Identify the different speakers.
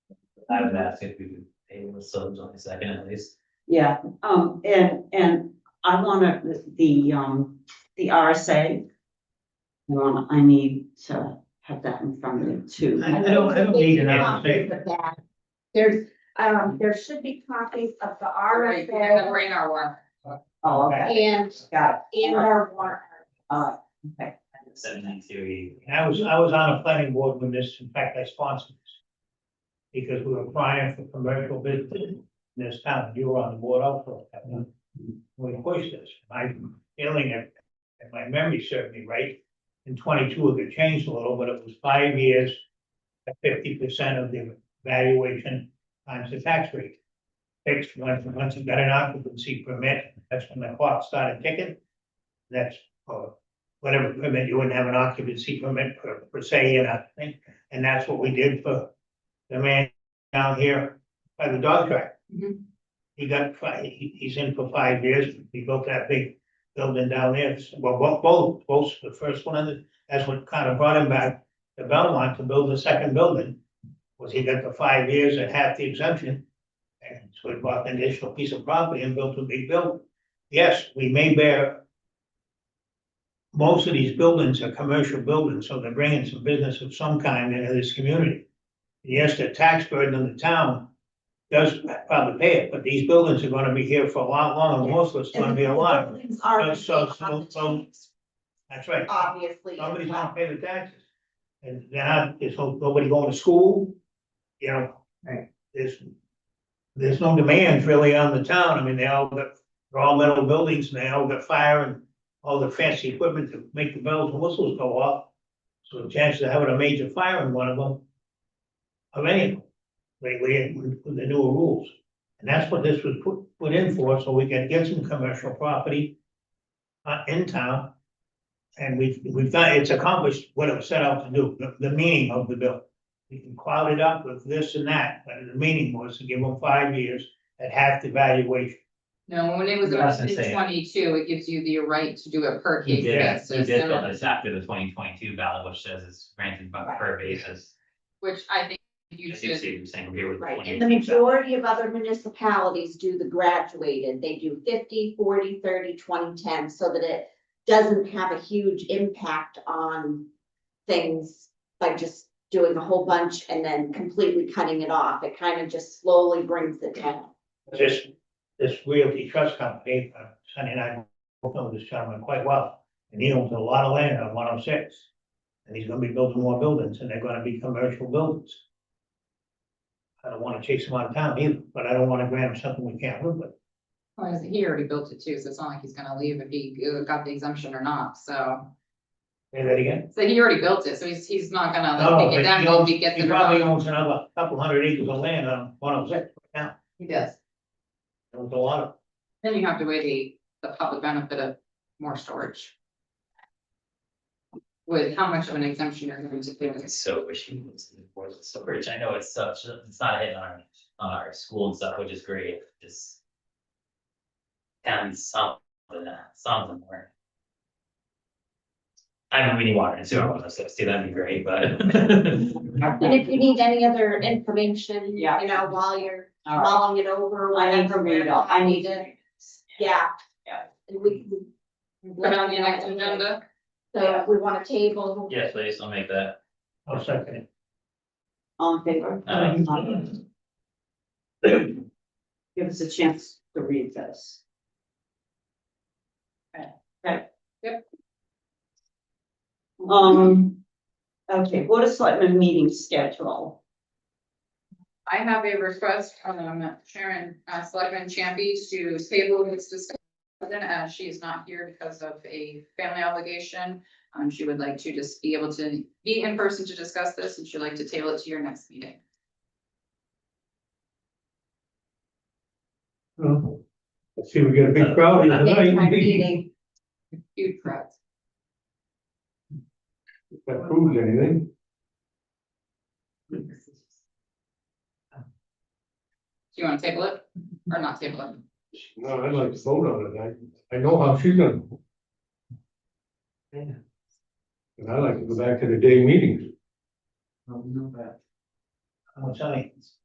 Speaker 1: I would ask if we could pay the subs on the second at least.
Speaker 2: Yeah, um, and, and I wanna, the, um, the RSA. I want, I need to have that in front of me too.
Speaker 3: I don't, I don't need an
Speaker 4: Copies
Speaker 3: RFP.
Speaker 4: of that. There's, um, there should be copies of the
Speaker 5: Alright, we're gonna
Speaker 4: RFA
Speaker 5: bring our work.
Speaker 2: Oh, okay,
Speaker 4: and,
Speaker 2: got
Speaker 4: and our warrant.
Speaker 2: Uh,
Speaker 1: Seven nine two.
Speaker 3: And I was, I was on a planning board when this, in fact, I sponsored this. Because we were applying for commercial business in this town, you were on the board also. at that time. We pushed this, my feeling, if, if my memory served me right, in twenty-two, it changed a little, but it was five years. At fifty percent of the valuation times the tax rate. Fixed, once, once you got an occupancy permit, that's when the clock started ticking. That's, uh, whatever permit, you wouldn't have an occupancy permit per, per se, and I think, and that's what we did for the man down here by the dog track.
Speaker 5: Mhm.
Speaker 3: He got, fi- he, he's in for five years, we built that big building down there, It's- well, both, both, both, the first one, that's what kind of brought him back to Belmont to build the second building. Was he got the five years at half the exemption, and so he bought an additional piece of property and built a big building. Yes, we may bear most of these buildings are commercial buildings, so they're bringing some business of some kind into this community. Yes, the tax burden on the town does probably pay it, but these buildings are gonna be here for a lot longer, most of it's gonna be a lot.
Speaker 4: Things are.
Speaker 3: So- so- so- so- That's right.
Speaker 4: Obviously. as
Speaker 3: Nobody's
Speaker 4: well.
Speaker 3: gonna pay the taxes. And they're not, there's no- nobody going to school, you know.
Speaker 2: Right.
Speaker 3: There's, there's no demands really on the town. I mean, they all got, they're all metal buildings and they all got fire and all the fancy equipment to make the bells and whistles go off. So the chances of having a major fire in one of them, of any of them, lately with with the newer rules. And that's what this was put, put in for, so we can get some commercial property uh, in town and we've, we've done, it's accomplished what it was set out to do, the, the meaning of the bill. We can cloud it up with this and that, but the meaning was to give them five years at half the valuation.
Speaker 5: No, when it was
Speaker 1: I was gonna
Speaker 5: amended
Speaker 1: say-
Speaker 5: in twenty-two, it gives you the right to do a per
Speaker 1: He
Speaker 5: case
Speaker 1: did, he
Speaker 5: basis.
Speaker 1: did
Speaker 5: similar-
Speaker 1: build this after the twenty twenty-two ballot, which says it's granted by per basis.
Speaker 5: Which I think you
Speaker 1: You see,
Speaker 5: should,
Speaker 1: you're saying we're here with the
Speaker 4: Right,
Speaker 1: twenty.
Speaker 4: and the majority of other municipalities do the graduated, they do 50, 40, 30, 20, 10, so that it. Doesn't have a huge impact on things by just doing a whole bunch and then completely cutting it off, it kind of just slowly brings it down.
Speaker 3: This, this realty trust company, uh, Sonny and I both know this gentleman quite well, and he owns a lot of land on one oh six. And he's gonna be building more buildings, and they're gonna be commercial buildings. I don't wanna chase him out of town either, but I don't wanna grant him something we can't live with.
Speaker 5: well, he already built it too, so it's not like he's gonna leave if he uh, got the exemption or not, so.
Speaker 3: Say that again?
Speaker 5: So he already built it, so he's, he's not gonna
Speaker 3: No,
Speaker 5: like
Speaker 3: but
Speaker 5: take it down
Speaker 3: he
Speaker 5: until
Speaker 3: owns,
Speaker 5: he gets
Speaker 3: he
Speaker 5: it.
Speaker 3: probably
Speaker 5: or not.
Speaker 3: owns another couple hundred acres of land on one of six now,
Speaker 5: He does.
Speaker 3: owns a lot of.
Speaker 5: Then you have to weigh the, the public benefit of more storage. With how much of an exemption you're going to give.
Speaker 1: I so wish he was in the board of storage. I know it's such, it's not hitting on on our school and stuff, which is great, just. And something, something more. I mean, we need water and sewer, on us, so see, that'd be great, but.
Speaker 4: And if you need any other information, you
Speaker 2: Yeah.
Speaker 4: know, while you're
Speaker 2: all right.
Speaker 4: mulling it over,
Speaker 2: I need to
Speaker 4: whatever.
Speaker 2: read all, I need to.
Speaker 4: Yeah.
Speaker 2: Yeah.
Speaker 4: And we. can-
Speaker 5: Put on the next agenda,
Speaker 4: So if we want a table.
Speaker 1: Yes, please, I'll make that.
Speaker 3: I'll second it.
Speaker 2: All in favor?
Speaker 1: Aye.
Speaker 2: Aye. Give us a chance to read this. Okay.
Speaker 5: Yep.
Speaker 2: Um, okay, Board of Selectmen meeting schedule.
Speaker 5: I have a request from Sharon, uh, Selectman Champy to table this discussion. As she is not here because of a family obligation, um, she would like to just be able to be in person to discuss this, and she'd like to table it to your next meeting.
Speaker 3: See, we got a big crowd. here
Speaker 4: Next time
Speaker 3: tonight.
Speaker 4: meeting.
Speaker 5: Huge crowd.
Speaker 3: That proves anything.
Speaker 5: Do you wanna table it or not table it?
Speaker 6: No, I'd like to vote on it, I, I know how she's gonna. vote.
Speaker 1: Yeah.
Speaker 6: And I like to go back to the day meetings,
Speaker 3: I'm telling you,